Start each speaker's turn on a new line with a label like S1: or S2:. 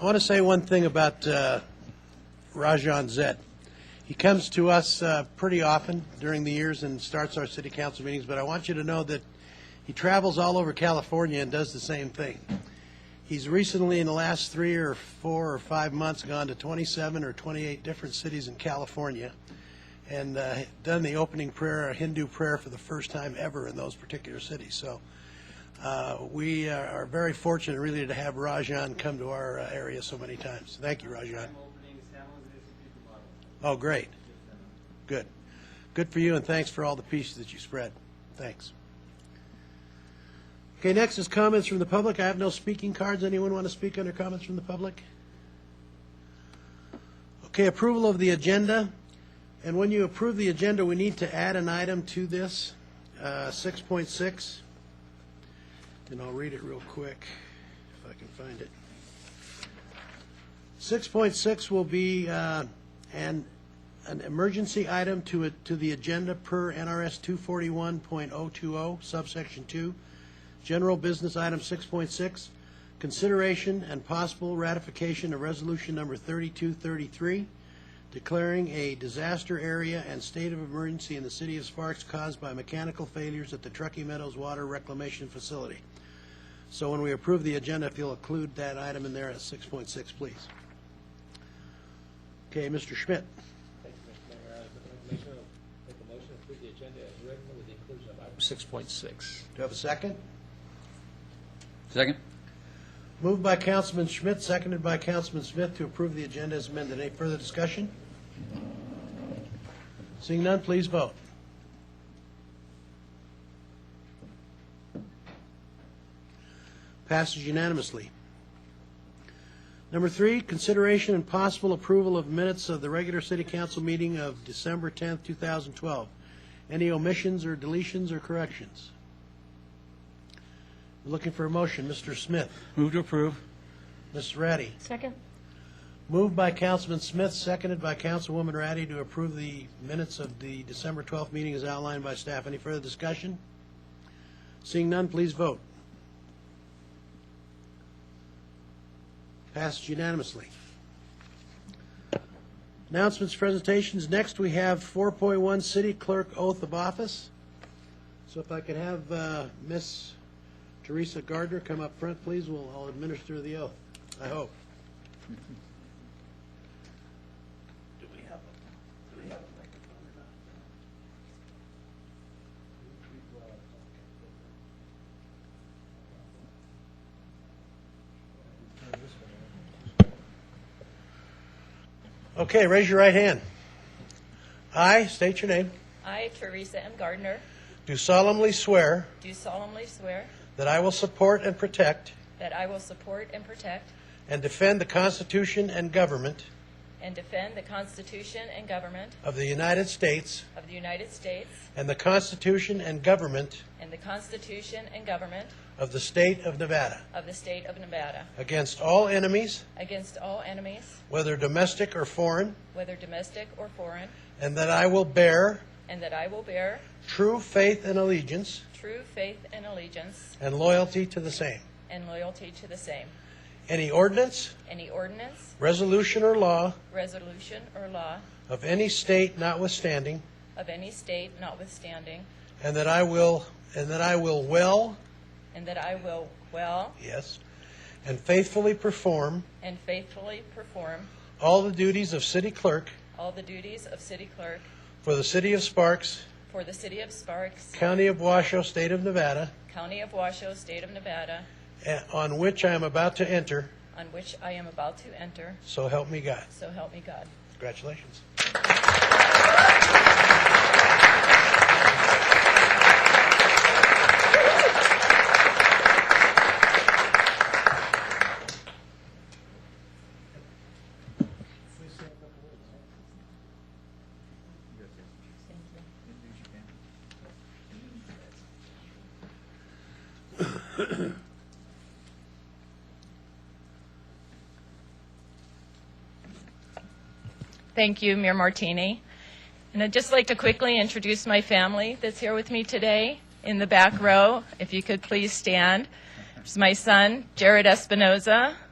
S1: I want to say one thing about uh, Rajan Zed. He comes to us uh, pretty often during the years and starts our city council meetings, but I want you to know that he travels all over California and does the same thing. He's recently, in the last three or four or five months, gone to 27 or 28 different cities in California and uh, done the opening prayer, a Hindu prayer, for the first time ever in those particular cities. So uh, we are are very fortunate, really, to have Rajan come to our uh, area so many times. Thank you, Rajan. Oh, great. Good. Good for you, and thanks for all the pieces that you spread. Thanks. Okay, next is comments from the public. I have no speaking cards. Anyone want to speak under comments from the public? Okay, approval of the agenda. And when you approve the agenda, we need to add an item to this, uh, 6.6. And I'll read it real quick, if I can find it. 6.6 will be uh, an, an emergency item to, it- to the agenda per NRS 241.020 subsection 2. General business item 6.6, consideration and possible ratification of resolution number 3233, declaring a disaster area and state of emergency in the city of Sparks caused by mechanical failures at the Truckee Meadows Water Reclamation Facility. So when we approve the agenda, if you'll include that item in there at 6.6, please. Okay, Mr. Schmidt.
S2: Thank you, Mr. Mayor. I make a motion- make a motion to approve the agenda as written with the inclusion of item six point six.
S1: Do you have a second?
S3: Second?
S1: Moved by Councilman Schmidt, seconded by Councilman Smith to approve the agenda as amended. Any further discussion? Seeing none, please vote. Passes unanimously. Number three, consideration and possible approval of minutes of the regular city council meeting of December 10th, 2012. Any omissions or deletions or corrections? Looking for a motion, Mr. Smith.
S3: Move to approve.
S1: Ms. Ratty.
S4: Second?
S1: Moved by Councilman Smith, seconded by Councilwoman Ratty to approve the minutes of the December 12th meeting as outlined by staff. Any further discussion? Seeing none, please vote. Passed unanimously. Announcements, presentations. Next, we have 4.1 City Clerk Oath of Office. So if I could have uh, Miss Teresa Gardner come up front, please, we'll, I'll administer the oath, I hope. Do we have, a- do we have a microphone or not? Okay, raise your right hand. I state your name.
S5: I, Teresa M. Gardner,
S1: Do solemnly swear
S5: do solemnly swear
S1: that I will support and protect
S5: that I will support and protect
S1: and defend the Constitution and government
S5: and defend the Constitution and government
S1: of the United States
S5: of the United States
S1: and the Constitution and government
S5: and the Constitution and government
S1: of the state of Nevada
S5: of the state of Nevada
S1: against all enemies,
S5: against all enemies,
S1: whether domestic or foreign,
S5: whether domestic or foreign,
S1: and that I will bear
S5: and that I will bear
S1: true faith and allegiance
S5: true faith and allegiance
S1: and loyalty to the same.
S5: and loyalty to the same.
S1: Any ordinance,
S5: Any ordinance,
S1: resolution, or law
S5: resolution, or law
S1: of any state notwithstanding,
S5: of any state notwithstanding,
S1: and that I will and that I will well,
S5: and that I will well
S1: yes, and faithfully perform
S5: and faithfully perform
S1: all the duties of city clerk
S5: all the duties of city clerk
S1: for the city of Sparks,
S5: For the city of Sparks,
S1: county of Washoe, state of Nevada,
S5: county of Washoe, state of Nevada,
S1: eh, on which I am about to enter.
S5: on which I am about to enter,
S1: So help me God.
S5: so help me God.
S1: Congratulations.
S5: Thank you, Mayor Martini. And I'd just like to quickly introduce my family that's here with me today in the back row. If you could please stand. There's my son, Jared Espinoza,